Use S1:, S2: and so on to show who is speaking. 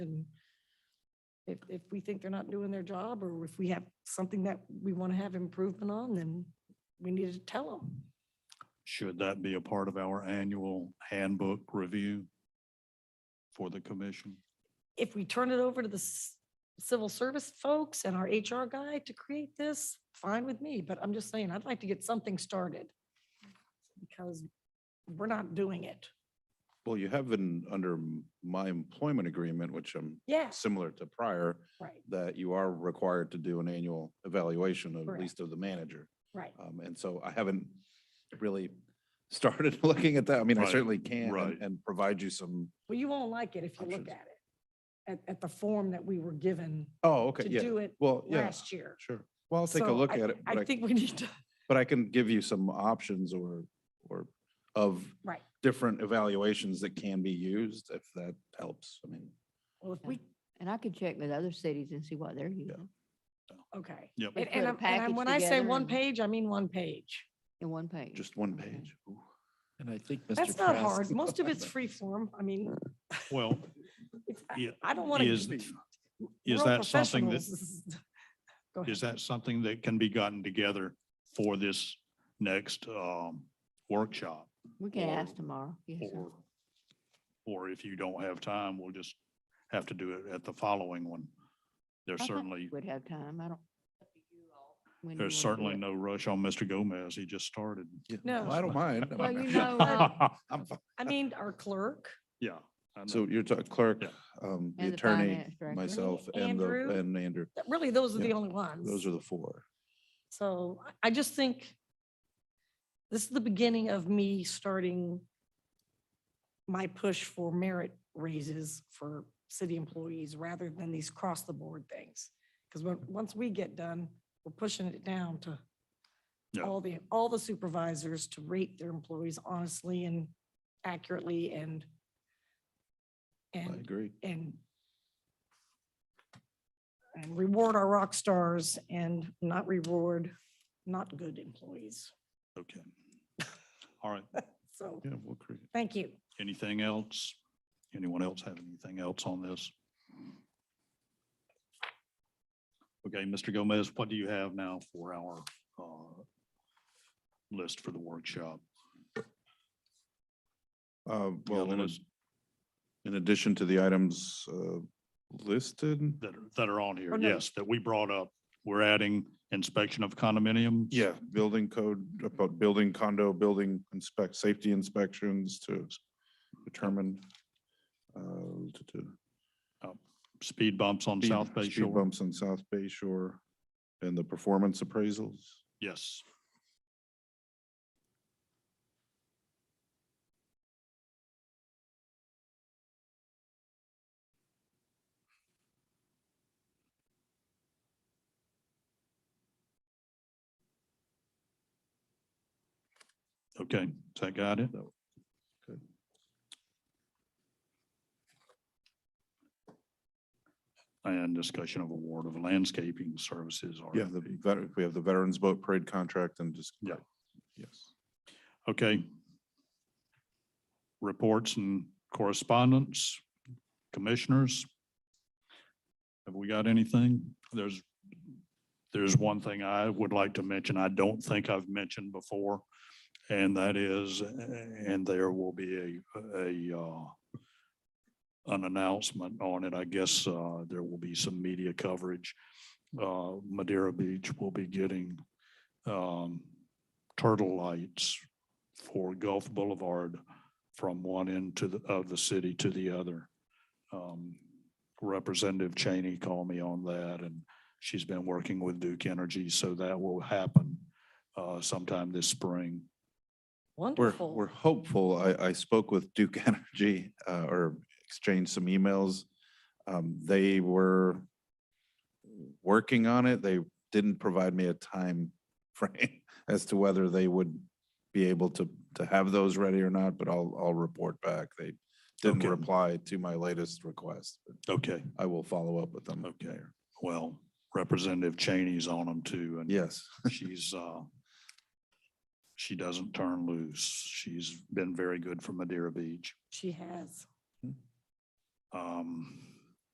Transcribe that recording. S1: If, if we think they're not doing their job, or if we have something that we want to have improvement on, then we need to tell them.
S2: Should that be a part of our annual handbook review for the commission?
S1: If we turn it over to the s- civil service folks and our HR guy to create this, fine with me, but I'm just saying, I'd like to get something started. Because we're not doing it.
S3: Well, you have in, under m- my employment agreement, which I'm
S1: Yes,
S3: similar to prior,
S1: right,
S3: that you are required to do an annual evaluation, of- at
S1: Correct.
S3: least of the manager.
S1: right.
S3: Um, and so I haven't really started looking at that. I mean, I
S2: Right,
S3: certainly can and-
S2: right.
S3: and provide you some,
S1: Well, you won't like it if you look
S3: Options.
S1: at it, at, at the form that we were given
S3: oh, okay,
S1: to
S3: yeah.
S1: do it
S3: Well, yeah,
S1: last year.
S3: sure. Well, I'll take a
S1: So
S3: look
S1: I-
S3: at it, but
S1: I
S3: I,
S1: think we need to,
S3: but I can give you some options or, or of
S1: right.
S3: different evaluations that can be used if that helps. I mean,
S1: Well, if
S4: Yeah.
S1: we,
S4: And I could check with other cities and see what they're using
S1: okay.
S2: Yep.
S4: We
S1: And, and
S4: put a
S1: I'm- and I'm-
S4: package
S1: when I say
S4: together
S1: one
S4: and-
S1: page, I mean one page.
S4: in one page.
S3: just one
S4: Okay.
S3: page. Ooh.
S5: Mm-hmm. And I think Mr.
S1: That's not
S5: Trask-
S1: hard. Most of it's free form. I mean,
S2: Well,
S1: it's- I-
S2: yeah,
S1: I don't want to.
S2: is- is that something that,
S1: Go ahead.
S2: is that something that can be gotten together for this next um, workshop?
S4: We can
S2: or-
S4: ask tomorrow. Yes, sir.
S2: Or, or if you don't have time, we'll just have to do it at the following one. There's
S4: I thought
S2: certainly,
S4: Would have time. I don't. when you
S2: there's
S4: wanna do
S2: certainly
S4: it.
S2: no rush on Mr. Gomez. He just started.
S3: Yeah,
S1: No.
S3: I don't mind. I
S4: Well,
S3: mean,
S4: you know, uh,
S3: I'm fine.
S1: I mean, our clerk,
S2: Yeah. I know.
S3: So you're talking clerk,
S2: Yeah.
S3: um, the
S4: And the
S3: attorney,
S4: finance director.
S3: myself and the,
S1: Andrew.
S3: and Andrew.
S1: that- really, those are the
S3: Yeah,
S1: only ones.
S3: Those are the four.
S1: So I I just think this is the beginning of me starting my push for merit raises for city employees rather than these cross the board things. Because when, once we get done, we're pushing it down to
S2: Yeah.
S1: all the, all the supervisors to rate their employees honestly and accurately and
S3: I
S1: and
S3: agree.
S1: and and reward our rock stars and not reward not good employees.
S2: Okay. All right.
S1: So,
S3: Yeah, we'll create.
S1: thank you.
S2: Anything else? Anyone else have anything else on this? Okay, Mr. Gomez, what do you have now for our uh, list for the workshop?
S3: Uh,
S2: the
S3: well, in ad-
S2: list.
S3: in addition to the items, uh, listed.
S2: That are, that are on
S1: Oh,
S2: here,
S1: no.
S2: yes, that we brought up. We're adding inspection of condominiums.
S3: Yeah, building code, about building condo, building inspect, safety inspections to determine. uh, to- to
S2: Speed bumps on
S3: speed-
S2: South Bay
S3: speed
S2: Shore.
S3: Bumps on South Bay Shore and the performance appraisals.
S2: Yes. Okay, so I got it.
S3: Good.
S2: And discussion of award of landscaping services.
S3: Yeah, the
S2: RFP.
S3: veteran, we have the Veterans Boat Parade contract and just.
S2: Yeah.
S3: Yes.
S2: Okay. Reports and correspondence, commissioners. Have we got anything? There's, there's one thing I would like to mention, I don't think I've mentioned before. And that is, and there will be a, a, uh, an announcement on it. I guess, uh, there will be some media coverage. Uh, Madeira Beach will be getting, um, turtle lights for Gulf Boulevard from one end to the, of the city to the other. Um, Representative Cheney called me on that and she's been working with Duke Energy, so that will happen uh, sometime this spring.
S3: We're,
S1: Wonderful.
S3: we're hopeful. I, I spoke with Duke Energy uh, or exchanged some emails. Um, They were working on it. They didn't provide me a time frame as to whether they would be able to, to have those ready or not, but I'll, I'll report back. They didn't
S2: Okay.
S3: reply to my latest request, but
S2: Okay,
S3: I will follow up with them.
S2: Okay. well, Representative Cheney's on them too, and
S3: Yes,
S2: she's, uh, she doesn't turn loose. She's been very good for Madeira Beach.
S1: She has.
S2: Um,